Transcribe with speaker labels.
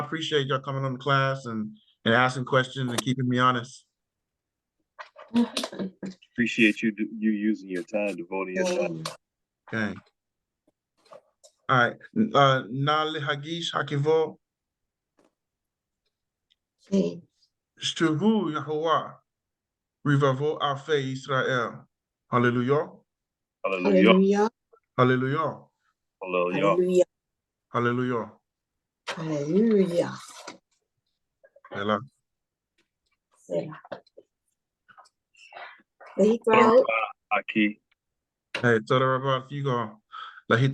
Speaker 1: appreciate y'all coming on the class and, and asking questions and keeping me honest.
Speaker 2: Appreciate you, do- you using your time, devoting your time.
Speaker 1: Okay. All right, uh, Nali Hagish Hakivo,
Speaker 3: Sí,
Speaker 1: Shuvu Yahuwah, Rivavo Afe Israel. Hallelujah,
Speaker 2: Hallelujah,
Speaker 3: aleluya,
Speaker 1: hallelujah,
Speaker 3: aleluya,
Speaker 2: hallelujah.
Speaker 1: hallelujah.
Speaker 3: aleluya.
Speaker 1: Ela.
Speaker 3: Selah. Ready,
Speaker 2: Thank
Speaker 3: bro?
Speaker 2: Aki,
Speaker 1: Hey, tell her about you go.